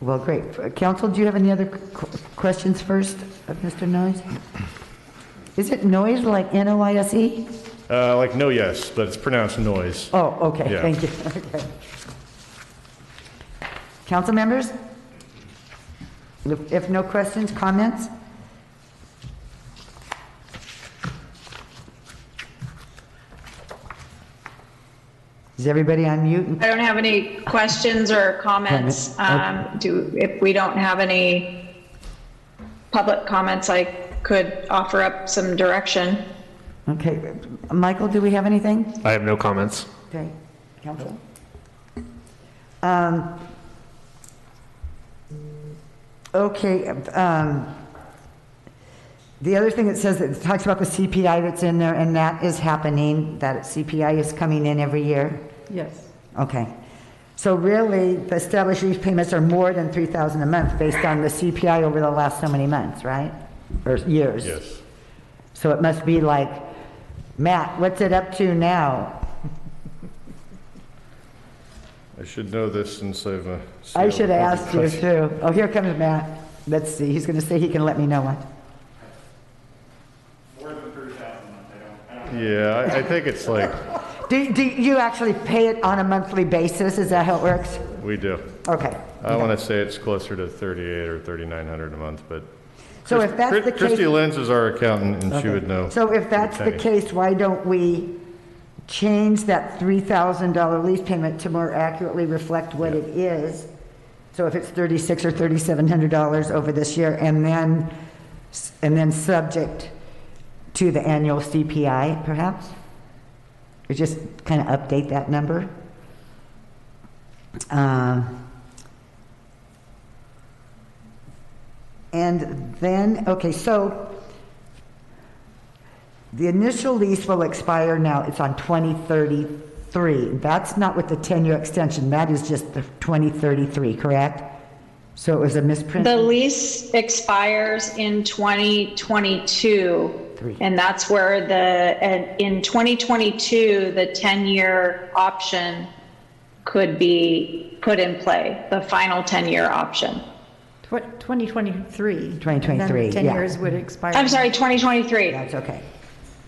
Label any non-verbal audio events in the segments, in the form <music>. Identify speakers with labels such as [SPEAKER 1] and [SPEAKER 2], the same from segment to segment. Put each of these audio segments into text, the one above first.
[SPEAKER 1] Well, great. Council, do you have any other qu- questions first of Mr. Noyes? Is it noise like N-O-I-S-E?
[SPEAKER 2] Uh, like no yes, but it's pronounced noise.
[SPEAKER 1] E? Oh, okay,
[SPEAKER 2] Yeah.
[SPEAKER 1] thank you. <laughs> Okay. Council members? If if no questions, comments? Is everybody on mute?
[SPEAKER 3] I don't have any questions or comments.
[SPEAKER 1] Comments,
[SPEAKER 3] Um, Do, if we don't have any public comments, I could offer up some direction.
[SPEAKER 1] Okay, Michael, do we have anything?
[SPEAKER 4] I have no comments.
[SPEAKER 1] Okay, council? Um, Okay, um, the other thing it says, it talks about the CPI that's in there, and that is happening, that CPI is coming in every year?
[SPEAKER 5] Yes.
[SPEAKER 1] Okay. So really, the established lease payments are more than 3,000 a month based on the CPI over the last so many months, right? Or years?
[SPEAKER 2] Yes.
[SPEAKER 1] So it must be like, Matt, what's it up to now?
[SPEAKER 2] I should know this since I've. uh,
[SPEAKER 1] I
[SPEAKER 2] seen
[SPEAKER 1] should
[SPEAKER 2] all the
[SPEAKER 1] have asked you
[SPEAKER 2] questions.
[SPEAKER 1] too. Oh, here comes Matt. Let's see, he's gonna say he can let me know what.
[SPEAKER 2] Yeah, I, I think it's like,
[SPEAKER 1] Do, do you actually pay it on a monthly basis? Is that how it works?
[SPEAKER 2] we do.
[SPEAKER 1] Okay.
[SPEAKER 2] I want to say it's closer to 38 or 3,900 a month, but.
[SPEAKER 1] So if that's
[SPEAKER 2] Chris-
[SPEAKER 1] the
[SPEAKER 2] Christy
[SPEAKER 1] case,
[SPEAKER 2] Lenz is our accountant and she would know.
[SPEAKER 1] so if that's the
[SPEAKER 2] Penny.
[SPEAKER 1] case, why don't we change that $3,000 lease payment to more accurately reflect what it is? So if it's 36 or $3,700 over this year and then, s- and then subject to the annual CPI perhaps? Or just kind of update that number? Um, And then, okay, so the initial lease will expire now, it's on 2033. That's not with the 10-year extension, that is just the 2033, correct? So it was a misprint?
[SPEAKER 3] The lease expires in 2022,
[SPEAKER 1] Three.
[SPEAKER 3] and that's where the, and in 2022, the 10-year option could be put in play, the final 10-year option.
[SPEAKER 5] Tw-
[SPEAKER 1] 2023,
[SPEAKER 5] 2023. And then
[SPEAKER 1] yeah.
[SPEAKER 5] 10 years would expire.
[SPEAKER 3] I'm sorry, 2023.
[SPEAKER 1] That's okay.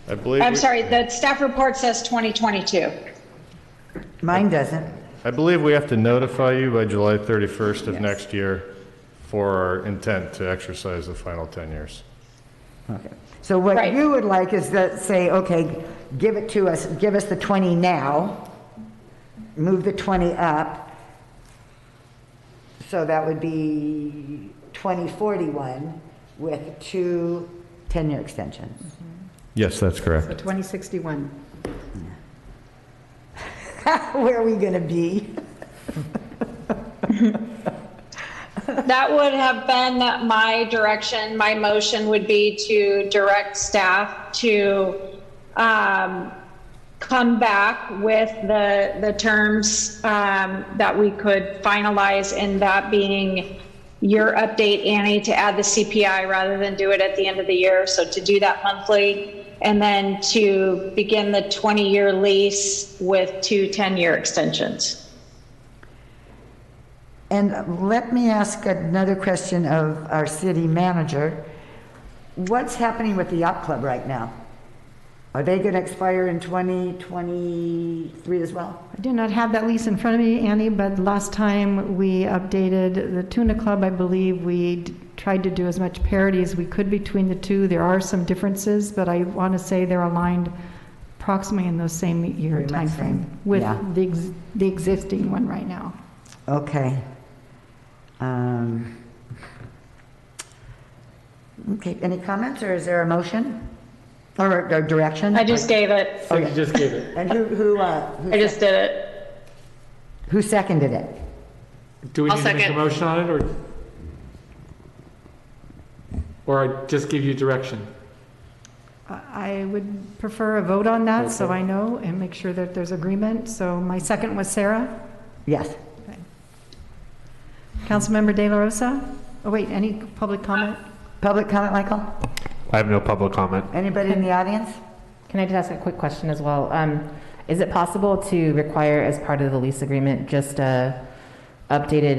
[SPEAKER 2] I believe.
[SPEAKER 3] I'm
[SPEAKER 2] we-
[SPEAKER 3] sorry, the staff report says 2022.
[SPEAKER 1] Mine doesn't.
[SPEAKER 2] I believe we have to notify you by July 31st of next year for our intent to exercise the final 10 years.
[SPEAKER 1] Okay. So what
[SPEAKER 3] Right.
[SPEAKER 1] you would like is to say, okay, give it to us, give us the 20 now, move the 20 up. So that would be 2041 with two 10-year extensions. <laughs>
[SPEAKER 2] Yes, that's correct.
[SPEAKER 5] So 2061.
[SPEAKER 1] Where are we going to be?
[SPEAKER 3] That would have been my direction. My motion would be to direct staff to um, come back with the, the terms um, that we could finalize, and that being your update, Annie, to add the CPI rather than do it at the end of the year. So to do that monthly, and then to begin the 20-year lease with two 10-year extensions.
[SPEAKER 1] And let me ask another question of our city manager. What's happening with the yacht club right now? Are they going to expire in 2023 as well?
[SPEAKER 5] I do not have that lease in front of me, Annie, but last time we updated the Tuna Club, I believe we d- tried to do as much parity as we could between the two. There are some differences, but I want to say they're aligned approximately in those same year
[SPEAKER 1] Pretty much
[SPEAKER 5] timeframe
[SPEAKER 1] same,
[SPEAKER 5] with
[SPEAKER 1] yeah.
[SPEAKER 5] the ex- the existing one right now.
[SPEAKER 1] Okay. Um, Okay, any comments, or is there a motion? Or or direction?
[SPEAKER 3] I just gave it.
[SPEAKER 1] Oh, you just gave it. And who, who, uh, who
[SPEAKER 3] I
[SPEAKER 1] sec-
[SPEAKER 3] just did it.
[SPEAKER 1] who seconded it?
[SPEAKER 6] Do we
[SPEAKER 7] I'll
[SPEAKER 6] need to make a
[SPEAKER 7] second.
[SPEAKER 6] motion on it, or? Or I just give you direction?
[SPEAKER 5] I I would prefer a vote on that, so I know and make sure that there's agreement. So my second was Sarah.
[SPEAKER 1] Yes.
[SPEAKER 5] Councilmember De La Rosa? Oh, wait, any public comment?
[SPEAKER 1] Public comment, Michael?
[SPEAKER 4] I have no public comment.
[SPEAKER 1] Anybody in the audience?
[SPEAKER 7] Can I just ask a quick question as well? Um, Is it possible to require as part of the lease agreement just a updated